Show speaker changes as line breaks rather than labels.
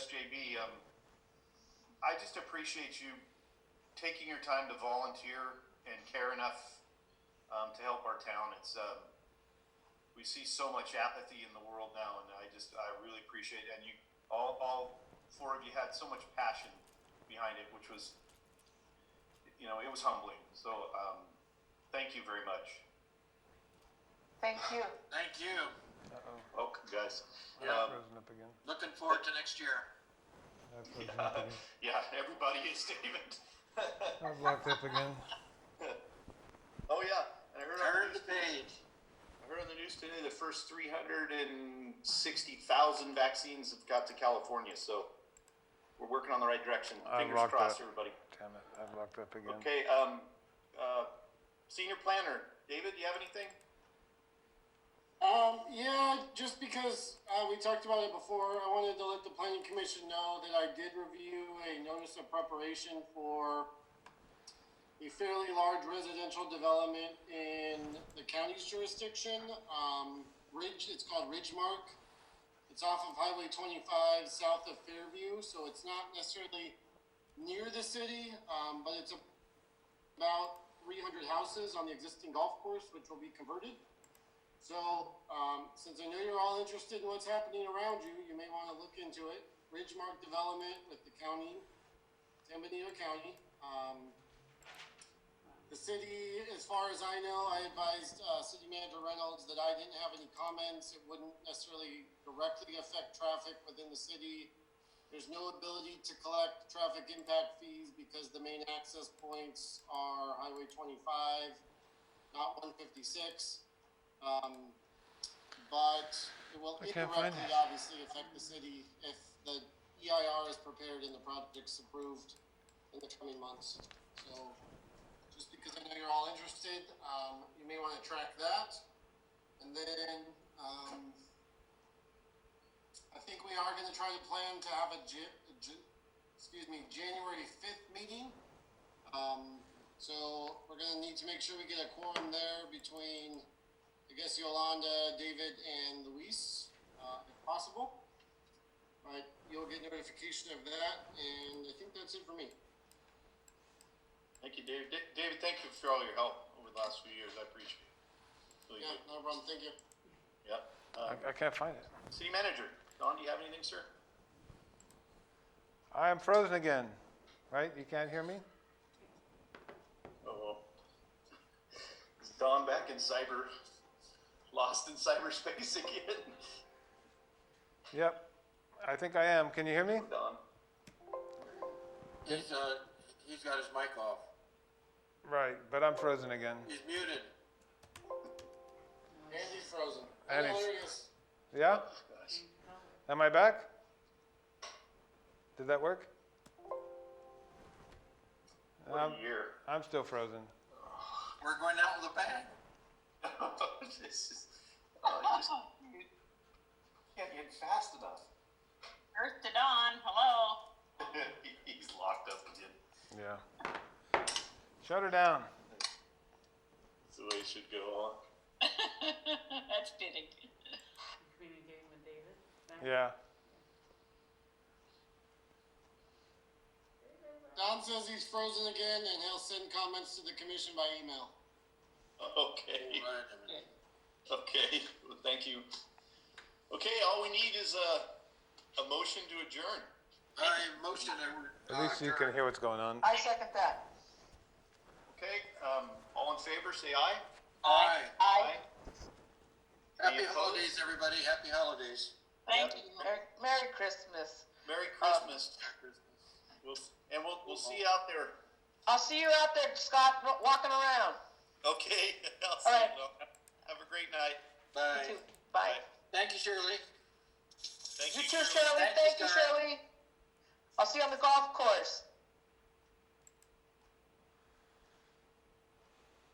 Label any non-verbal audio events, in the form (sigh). SJB. Um, I just appreciate you taking your time to volunteer and care enough um, to help our town. It's um, we see so much apathy in the world now, and I just I really appreciate it. And you all all four of you had so much passion behind it, which was you know it was humbling. So um, thank you very much.
Thank you.
Thank you.
Uh-oh,
Okay, guys.
Yeah.
Um,
frozen up again.
Looking forward to next year.
I've frozen up again.
(laughs) yeah, everybody is David. (laughs)
I've locked up again.
Oh yeah, and I heard on the
Turn
news
the page.
I heard on the news today the first 360,000 vaccines have got to California, so we're working on the right direction.
I
Fingers
locked
crossed,
up.
everybody.
Damn it, I've locked up again.
Okay, um, uh, senior planner, David, you have anything?
Um, yeah, just because uh, we talked about it before, I wanted to let the planning commission know that I did review a notice of preparation for a fairly large residential development in the county's jurisdiction. Um, Ridge, it's called Ridgemark. It's off of Highway 25, south of Fairview, so it's not necessarily near the city, um, but it's about 300 houses on the existing golf course, which will be converted. So, um, since I know you're all interested in what's happening around you, you may want to look into it. Ridgemark Development with the county, San Benito County. Um, the city, as far as I know, I advised uh, City Manager Reynolds that I didn't have any comments. It wouldn't necessarily directly affect traffic within the city. There's no ability to collect traffic impact fees because the main access points are Highway 25, not 156. Um, but it will
I can't find
indirectly,
it.
obviously, affect the city if the EIR is prepared and the project's approved in the coming months. So just because I know you're all interested, um, you may want to track that. And then, um, I think we are going to try to plan to have a Ja- a Ja- excuse me, January fifth meeting. Um, so we're going to need to make sure we get a quorum there between, I guess Yolanda, David, and Luis, uh, if possible. Right, you'll get notification of that, and I think that's it for me.
Thank you, David. Da- David, thank you for all your help over the last few years. I appreciate it. Really
Yeah,
do.
no problem. Thank you.
Yep. Um,
I, I can't find it.
City manager, Don, do you have anything, sir?
I am frozen again, right? You can't hear me?
Oh, well. Is Don back in cyber, lost in cyberspace again?
Yep, I think I am. Can you hear me?
Don.
He's, uh, he's got his mic off.
Right, but I'm frozen again.
He's muted.
Andy's frozen.
And he's-
Hilarious.
Yeah?
Gosh.
Am I back? Did that work?
What
Um,
a year. (laughs)
I'm still frozen.
We're going out with a bang.
this is, oh, I just you can't get fast enough. (laughs)
Earth to dawn. Hello. (laughs)
He's locked up again.
Yeah. Shut her down.
That's the way it should go
That's fitting.
communicating with David.
Yeah.
Don says he's frozen again, and he'll send comments to the commission by email.
on. (laughs) Okay,
Right in a minute.
okay. Well, thank you. Okay, all we need is a, a motion to adjourn.
I motion that we.
At least you can hear what's going on.
I second that.
Okay, um, all in favor, say aye.
Aye.
Aye.
Happy holidays, everybody. Happy holidays.
Thank you. Merry- Merry Christmas.
Merry Christmas. We'll, and we'll, we'll see you out there.
I'll see you out there, Scott, wa- walking around.
Okay, (laughs) I'll see you.
All right.
Laura. Have a great night.
You
Bye.
too. Bye.
Thank you, Shirley.
Thank
You
you.
too,
Shirley.
Shirley.
Thank you,
Thank you,
Scott.
Shirley. I'll see you on the golf course.